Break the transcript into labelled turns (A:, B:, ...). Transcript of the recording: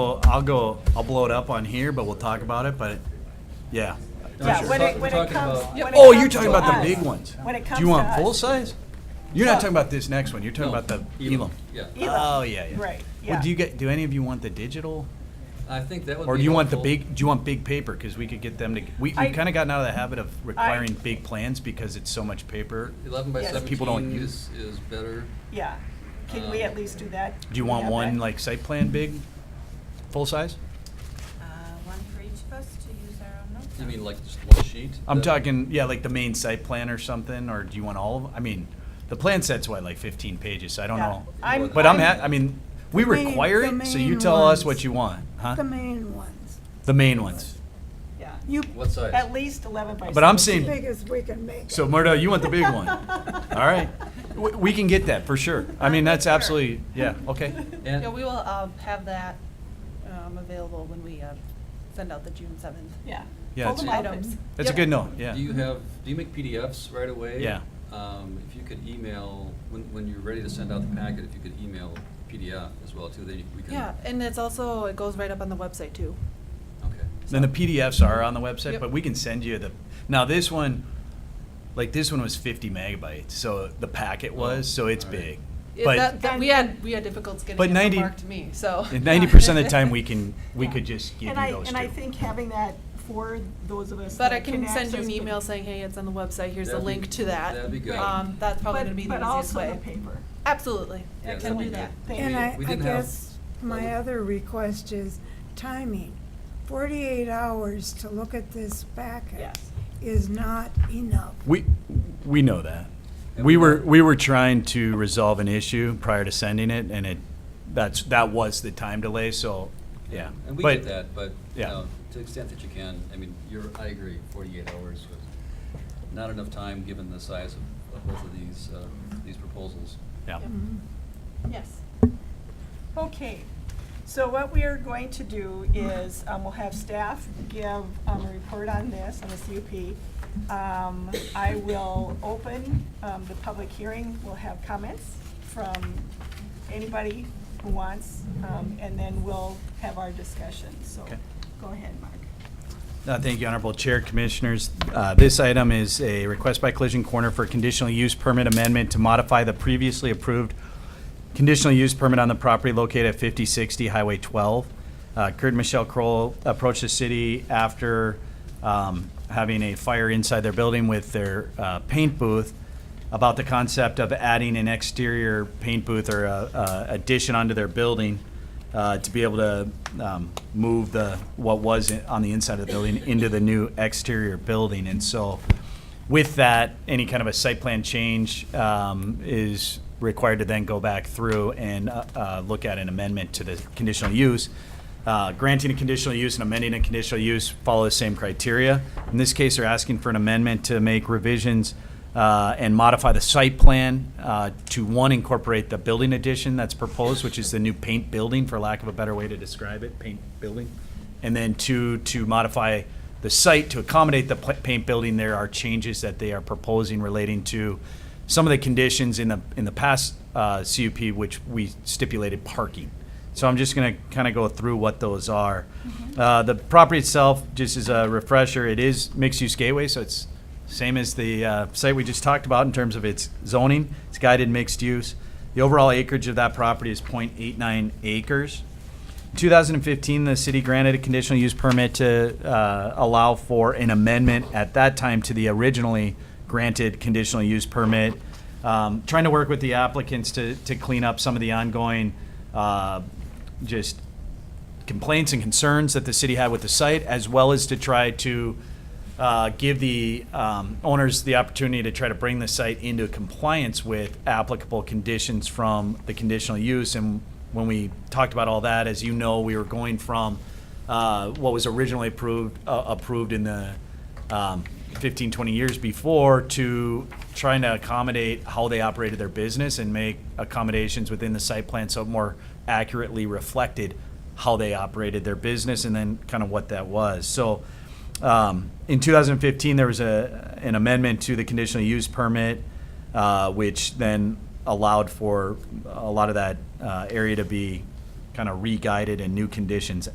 A: Well, I'll go, I'll blow it up on here, but we'll talk about it, but, yeah.
B: Yeah, when it,
C: We're
B: when it
C: talking
B: comes.
C: about-
B: when it
A: Oh, you're
B: comes
A: talking
B: to
A: about the
B: us,
A: big ones.
B: When it comes to us.
A: Do you want full size? You're not
B: No.
A: talking about this next one, you're talking about the Elam.
C: Yeah,
B: Elam.
A: Oh, yeah, yeah.
B: Right,
A: Well,
B: yeah.
A: do you get, do any of you want the digital?
C: I think that would be.
A: Or do you want the
C: helpful.
A: big, do you want big paper? Because we could get them to, we,
B: I-
A: we've kind of gotten out of the habit of requiring big plans because it's so much paper.
C: Eleven by
B: Yes.
C: seventeen
A: People don't
C: is, is better.
B: Yeah. Can we at least do that?
A: Do you want
B: Yeah,
A: one,
B: but-
A: like, site plan big, full size?
D: Uh, one for each of us to use our own notes.
C: You
D: on.
C: mean like just one sheet?
A: I'm
C: That-
A: talking, yeah, like the main site plan or something, or do you want all of, I mean, the plan set's what, like fifteen pages, so I don't
B: Yeah.
A: know.
B: I'm-
A: But I'm,
B: I'm-
A: ha- I mean, we
E: The main-
A: require
E: the
A: it, so you
E: main
A: tell us
E: ones.
A: what you want,
E: The
A: huh?
E: main ones.
A: The main ones.
B: Yeah.
E: You,
C: What size?
B: At least eleven by.
A: But I'm
B: 17.
A: seeing-
E: big as we can make it.
A: So Murdo, you want the big one? All right, we, we can get that for sure. I mean, that's
D: Sure.
A: absolutely, yeah, okay.
C: And-
D: Yeah, we will uh, have that um, available when we uh, send out the June 7th.
B: Yeah.
A: Yeah,
B: Fold
A: it's-
B: them up and-
A: That's a
D: Yep.
A: good note, yeah.
C: Do you have, do you make PDFs right away?
A: Yeah.
C: Um, if you could email, when, when you're ready to send out the packet, if you could email PDF as well too, then we can.
D: Yeah, and it's also, it goes right up on the website too.
C: Okay.
A: Then the PDFs are on the website,
D: Yep.
A: but we can send you the, now this one, like this one was fifty megabytes, so the packet was, so it's
C: Oh, All right.
A: big.
D: It-
A: But-
D: that- that- We had, we had difficulty getting
A: But
D: it
A: 90
D: from Mark to me, so.
A: Ninety percent of the time, we can, we
B: Yeah.
A: could just give you
B: And I,
A: those two.
B: and I think having that for those of us
D: But I
B: that
D: can send you
B: access
D: an
B: the-
D: email saying, hey, it's on the website, here's a
C: That'd be-
D: link to that.
C: that'd be good.
D: Um, That's probably
B: but-
D: going to be the easiest
B: But
D: way.
B: also the paper.
D: Absolutely.
C: Yeah,
D: I
C: that'd
D: can
C: be
D: do
C: good.
D: that.
B: Thank
E: And
B: you.
E: I,
C: We
E: I
C: didn't have-
E: guess my other request is timing. Forty-eight hours to look at this packet
B: Yes.
E: is not enough.
A: We, we know that.
C: Yeah,
A: We
C: we
A: were,
C: know.
A: we were trying to resolve an issue prior to sending it, and it, that's, that was the time delay, so, yeah.
C: And we
A: But-
C: get that, but, you
A: Yeah.
C: know, to the extent that you can, I mean, you're, I agree, forty-eight hours was not enough time, given the size of, of both of these, uh, these proposals.
A: Yeah.
E: Mhm.
B: Mm-hmm.
D: Yes.
B: Okay, so what we are going to do is, um, we'll have staff give um, a report on this, on the CUP. Um, I will open um, the public hearing, we'll have comments from anybody who wants, um, and then we'll have our discussion, so
A: Okay.
B: go ahead, Mark.
A: Uh, Thank you, Honorable Chair, Commissioners. Uh, This item is a request by Collision Corner for conditional use permit amendment to modify the previously approved conditional use permit on the property located at 5060 Highway 12. Uh, Kurt and Michelle Kroll approached the city after um, having a fire inside their building with their uh, paint booth about the concept of adding an exterior paint booth or a- a addition onto their building uh, to be able to um, move the, what was in- on the inside of the building into the new exterior building. And so with that, any kind of a site plan change um, is required to then go back through and uh, uh, look at an amendment to the conditional use. Uh, Granting a conditional use and amending a conditional use follow the same criteria. In this case, they're asking for an amendment to make revisions uh, and modify the site plan uh, to, one, incorporate the building addition that's proposed, which is the new paint building, for lack of a better way to describe it, paint building. And then two, to modify the site to accommodate the pla- paint building, there are changes that they are proposing relating to some of the conditions in the, in the past uh, CUP, which we stipulated parking. So I'm just going to kind of go through what those are. Uh, The property itself, just as a refresher, it is mixed-use gateway, so it's same as the uh, site we just talked about in terms of its zoning. It's guided mixed use. The overall acreage of that property is .89 acres. In 2015, the city granted a conditional use permit to uh, allow for an amendment at that time to the originally granted conditional use permit. Um, Trying to work with the applicants to, to clean up some of the ongoing, uh, just complaints and concerns that the city had with the site, as well as to try to uh, give the um, owners the opportunity to try to bring the site into compliance with applicable conditions from the conditional use. And when we talked about all that, as you know, we were going from uh, what was originally approved, uh, approved in the um, 15, 20 years before to trying to accommodate how they operated their business and make accommodations within the site plan so it more accurately reflected how they operated their business and then kind of what that was. So um, in 2015, there was a, an amendment to the conditional use permit, uh, which then allowed for a lot of that uh, area to be kind of re-guided and new conditions